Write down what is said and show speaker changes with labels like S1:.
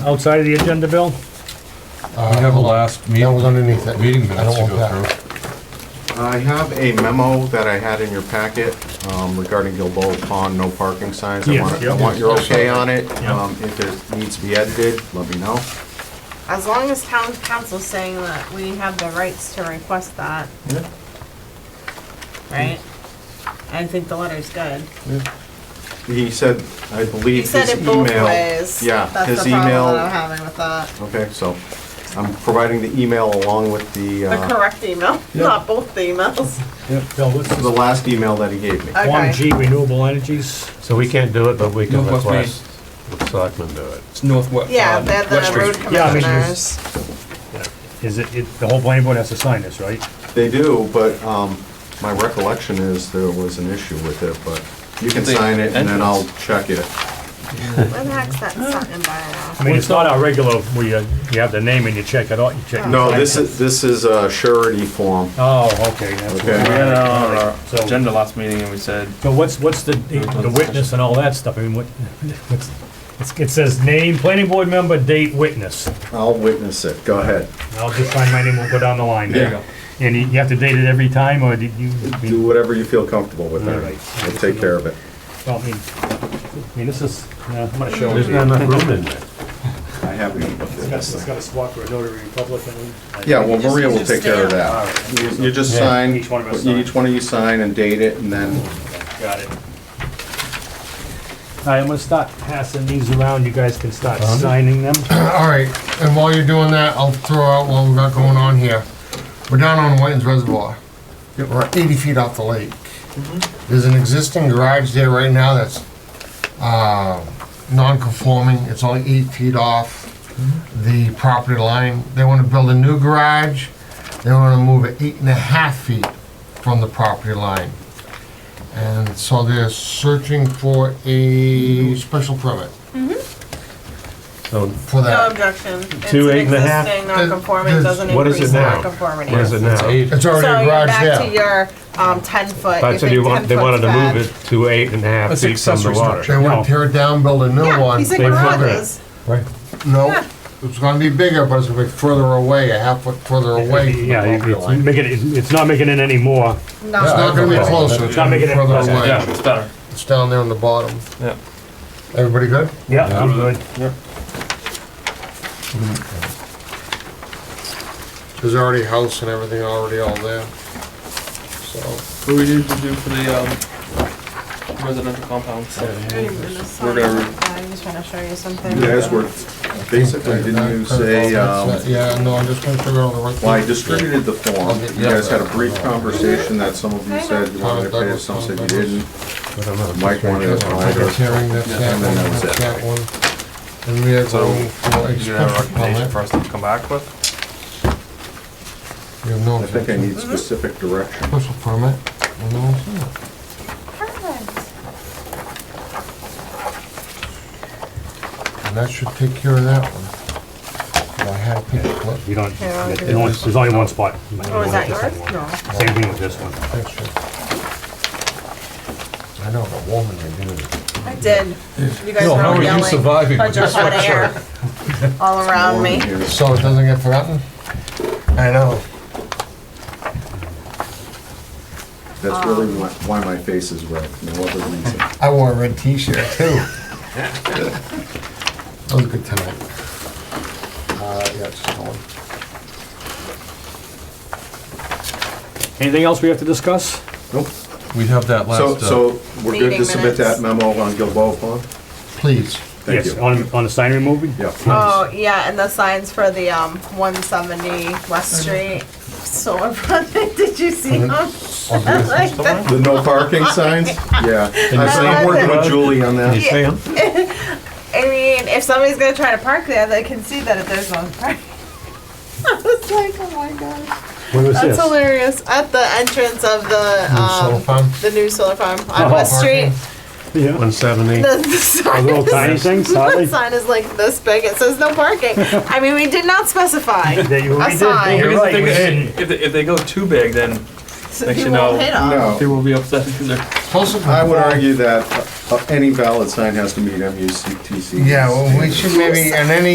S1: outside of the agenda, Bill?
S2: We have a last
S3: Uh, That was
S2: meeting,
S3: underneath it.
S2: meeting
S3: I don't
S2: minutes to
S3: want
S2: go
S3: that.
S2: through.
S4: I have a memo that I had in your packet um, regarding Gilboa Pond, no parking signs. I
S1: Yes,
S4: want, I
S1: yep.
S4: want your okay on it.
S1: Yep.
S4: Um, If there needs to be edited, let me know.
S5: As long as town council's saying that we have the rights to request that, right? I think the letter's good.
S4: He said, I
S5: He
S4: believe his
S5: said
S4: email.
S5: it both ways.
S4: Yeah,
S5: That's
S4: his
S5: the problem that I'm
S4: email.
S5: having with that.
S4: Okay, so I'm providing the email along with the,
S5: The
S4: uh,
S5: correct email, not both the emails.
S1: Bill, what's
S4: the last email that he gave me.
S5: Uh,
S1: One
S5: Okay.
S1: G Renewable Energies.
S6: So we can't do it, but we can
S7: Northwest
S6: request the selectmen do it.
S7: It's northwest. um,
S4: Um,
S5: Yeah, they're the road
S1: Yeah, I mean,
S5: commissioners.
S1: Is it, it- the whole planning board has to sign this, right?
S4: They do, but um, my recollection is there was an issue with it, but you can
S7: The
S4: sign it and then I'll
S7: entrance.
S4: check it.
S5: Where the heck's that something
S1: I
S5: by
S1: mean, it's not our regular, we, uh, you have the name and you check it out, you
S5: Oh.
S1: check.
S4: No, this is, this is a surety form.
S1: Oh, okay. that's what-
S4: Okay.
S7: We had it on our uh,
S1: So-
S7: agenda last meeting and we said,
S1: So what's, what's the, the witness and all that stuff, I mean, what, what's, it's- it says name, planning board member, date, witness.
S4: I'll witness it. Go ahead.
S1: I'll just find my name, we'll go down the line.
S4: There you go.
S1: And you you have to date it every time, or did you?
S4: Do whatever you feel comfortable with
S1: All right.
S4: that. We'll take care of it.
S1: Well, I mean, I mean, this is, uh, I'm gonna show
S6: There's
S1: it.
S6: not enough room in there.
S4: I have
S1: It's got a spot for a notary Republican.
S4: Yeah, well, Maria will
S5: Just-
S4: take care of that. You- You just sign,
S1: Each one of us
S4: each one of you sign and date it and then,
S1: Got it. All right, I'm gonna start passing these around, you guys can start signing them.
S3: All right, and while you're doing that, I'll throw out what we've got going on here. We're down on Whitens Reservoir. We're 80 feet off the lake. There's an existing garage there right now that's uh, non-conforming. It's only eight feet off the property line. They want to build a new garage. They want to move it eight and a half feet from the property line. And so they're searching for a special permit
S6: So
S3: for
S5: now? No
S3: that.
S5: objection. It's
S6: Uh, Two,
S5: an
S6: eight and a half?
S5: Existing non-conforming
S3: There's-
S5: doesn't
S6: what is it
S5: increase the
S6: now?
S5: non-conformity.
S6: what is it now?
S3: It's
S5: So
S3: already a
S5: you're
S3: garage there.
S5: back to your, um, ten foot.
S6: But so
S5: think
S6: you want,
S5: 10
S6: they
S5: foot's
S6: wanted to
S5: bad.
S6: move it to eight and a half
S7: That's
S6: feet from the
S7: accessory
S6: water.
S3: They want to tear it down, build a new
S5: Yeah,
S3: one.
S5: he said
S6: They want
S5: garages.
S6: Right.
S3: No, it's gonna be bigger, but it's gonna be further away, a half foot further away. from the
S1: Yeah,
S3: property
S1: it's
S3: line.
S1: making, it- it's not making it any more.
S5: No.
S3: It's not gonna be closer, it's
S1: Not
S3: gonna be
S1: making it
S3: further
S1: closer,
S3: away.
S7: yeah, it's better.
S3: It's down there on the bottom.
S7: Yeah.
S3: Everybody good?
S1: Yeah, I'm good.
S3: There's already a house and everything already all there. So,
S7: What we need to do for the, um, residential compounds. We're gonna re-
S5: I'm just trying to show you something.
S4: you guys were, basically, didn't you say, um,
S3: Yeah, no, I'm just gonna figure out the right.
S4: well, I distributed the form. You guys had a brief conversation that some of you said you wanted to pay us, some said you didn't. Mike wanted us to buy
S3: Like a
S4: those.
S3: tearing, that's
S4: Yeah,
S3: that
S4: and
S3: one,
S4: then that was
S3: that's
S4: it.
S3: that one. And we have
S7: So,
S3: room for
S7: Do you have a
S3: expression
S7: recommendation for
S3: permit.
S7: us to come back with?
S3: We have no
S4: I think I
S3: exception.
S4: need specific direction.
S3: Special permit. and no exception.
S5: Perfect.
S3: And that should take care of that one. Well, I had a picture clip.
S1: You don't,
S5: Yeah, I'll do
S1: there's only- there's only one spot.
S5: Oh, is that yours? No.
S1: Same thing with this one.
S3: Picture. I know, the woman that did it.
S5: I did. You guys were all yelling.
S2: surviving?
S5: I just had air all around me.
S4: Here.
S3: So it doesn't get forgotten? I know.
S4: That's really why why my face is red, no other reason.
S3: I wore a red t-shirt too. That was a good time. Uh, yeah, it's just one.
S1: Anything else we have to discuss?
S4: Nope.
S2: We have that
S4: So,
S2: last, uh,
S4: so we're good
S5: Meeting
S4: to submit that
S5: minutes.
S4: memo on Gilboa Pond?
S3: Please.
S4: Thank
S1: Yes,
S4: you.
S1: on, on the sign removal?
S4: Yeah.
S5: Oh, yeah, and the signs for the, um, one seventy West Street. So, did you see them? Like, that-
S4: The no parking signs? Yeah.
S5: you-
S4: I'm working with Julie on that.
S6: You see 'em?
S5: I mean, if somebody's gonna try to park there, they can see that there's no parking. I was like, oh my gosh.
S1: What was
S5: That's
S1: this?
S5: hilarious. At the entrance of the,
S3: New solar
S5: um,
S3: farm?
S5: the new solar farm
S1: Oh,
S5: on West Street.
S3: parking.
S1: Yeah.
S6: One seventy.
S5: The, the sign
S1: little
S5: is-
S1: tiny things,
S5: The
S1: Sally?
S5: sign is like this big. It says no parking. I mean, we did not specify.
S1: That you- we
S5: A
S1: did,
S5: sign.
S1: you're
S7: Here's the
S1: right,
S7: thing,
S1: we didn't.
S7: if, if they- if they go too big, then
S5: So
S7: Makes you
S5: people
S7: know-
S5: will hit 'em.
S7: they
S4: No,
S7: will be upset because they're.
S4: I would argue that uh, any valid sign has to meet MUCTC.
S3: Yeah, well, we should maybe, and any